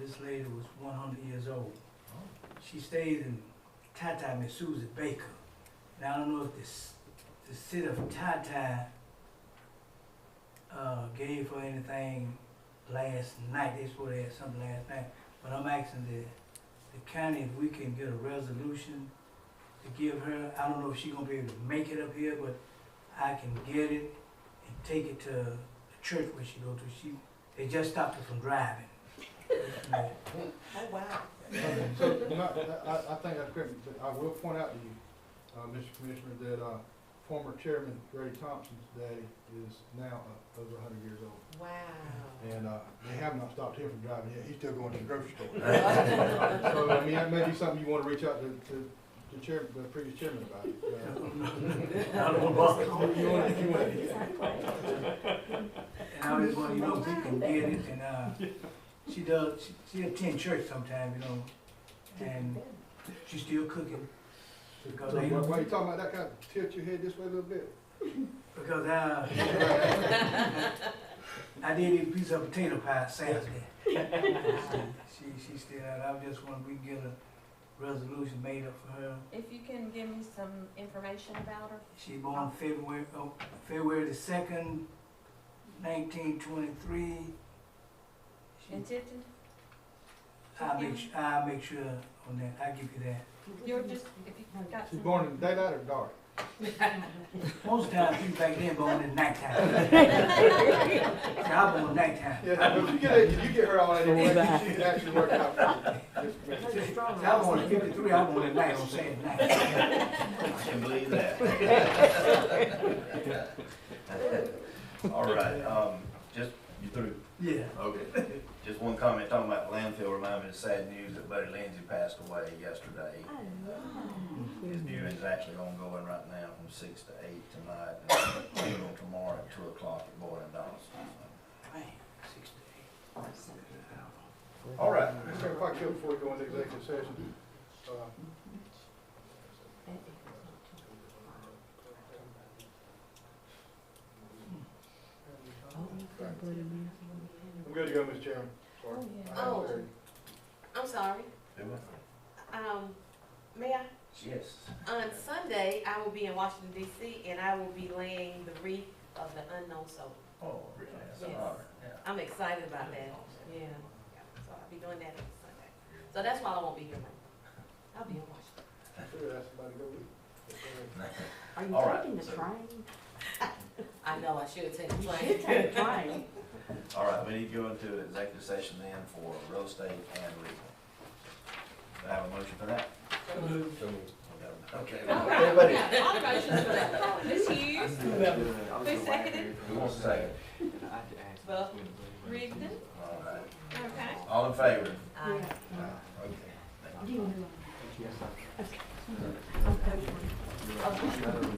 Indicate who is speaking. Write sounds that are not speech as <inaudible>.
Speaker 1: this lady was one hundred years old. She stayed in Tata Miss Susie Baker. Now I don't know if this, the city of Tata uh, gave her anything last night. They supposed to have something last night. But I'm asking the, the county if we can get a resolution to give her. I don't know if she's gonna be able to make it up here, but I can get it and take it to the church where she go to. She, they just stopped her from driving. Yeah.
Speaker 2: Oh, wow.
Speaker 3: So, you know, I, I- I think that's correct, but I will point out to you, uh, Mr. Commissioner, that, uh, former chairman Ray Thompson's daddy is now uh, over hundred years old.
Speaker 2: Wow.
Speaker 3: And, uh, they have not stopped him from driving yet, he's still going to the grocery store. <laughs> So, I mean, that may be something you wanna reach out to, to, to chair, the previous chairman about. uh,
Speaker 1: I don't wanna bother.
Speaker 3: if you wanna- if you wanna-
Speaker 1: And I just want, you know, if we can get it, and, uh, she does, she, she attend church sometime, you know, and she's still cooking. Because,
Speaker 3: So, why- why
Speaker 1: they-
Speaker 3: you talking about that, kind of tilt your head this way a little bit?
Speaker 1: because I, I did eat a piece of potato pie Saturday. She, she still, out. I just want, we can get a resolution made up for her.
Speaker 4: If you can give me some information about her.
Speaker 1: She born February, oh, February the second, nineteen twenty-three.
Speaker 4: In Tifton,
Speaker 1: I'll make, su- I'll make sure on that, I'll give you that.
Speaker 4: you're just, if you got
Speaker 3: She's
Speaker 4: some.
Speaker 3: born in daylight or dark?
Speaker 1: Most times people back then born at
Speaker 4: <laughs> Oh,
Speaker 1: nighttime. See, I born nighttime.
Speaker 3: Yeah, but if you get, if you get her all that information, she can actually work out for you. Mr. <laughs> Commissioner.
Speaker 1: See, I born at fifty-three, I born at night on Saturday night.
Speaker 5: Can believe that. All right, um, just, you through?
Speaker 1: Yeah,
Speaker 5: Okay. Just one comment, talking about the landfill, reminded me of sad news that Buddy Lindsay passed away yesterday. His viewing is actually ongoing right now from six to eight tonight, and funeral tomorrow at two o'clock at Boyd and Donaldson.
Speaker 1: man, six to eight.
Speaker 5: All right,
Speaker 3: Mr. If I could, before we go into executive session, uh, I'm good to go, Mr. Chairman. Sorry.
Speaker 4: Oh, yeah.
Speaker 3: I have
Speaker 2: Oh.
Speaker 3: clarity.
Speaker 2: I'm sorry.
Speaker 5: do it.
Speaker 2: Um, may I?
Speaker 5: Yes.
Speaker 2: On Sunday, I will be in Washington DC and I will be laying the wreath of the unknown soul.
Speaker 5: Oh, really? That's an
Speaker 2: Yes.
Speaker 5: honor, yeah.
Speaker 2: I'm excited about that. Yeah. So I'll be doing that on Sunday. So that's why I won't be here Monday. I'll be in Washington.
Speaker 3: Should have asked somebody to go with you.
Speaker 6: Are
Speaker 5: All
Speaker 6: you
Speaker 5: right,
Speaker 6: taking the
Speaker 5: so-
Speaker 6: train?
Speaker 2: I know I should take a
Speaker 6: You
Speaker 2: plane.
Speaker 6: should take the train.
Speaker 5: All right, we need to go into executive session then for real estate and legal. Do I have a motion for that?
Speaker 2: <laughs>
Speaker 5: Okay. Everybody,
Speaker 4: All motions for that. Ms. Hughes, who seconded?
Speaker 5: who wants to say it?
Speaker 2: But Rigdon,
Speaker 5: All right.
Speaker 4: Okay.
Speaker 5: All in favor?
Speaker 2: I
Speaker 5: Okay. Thank you.
Speaker 6: You know.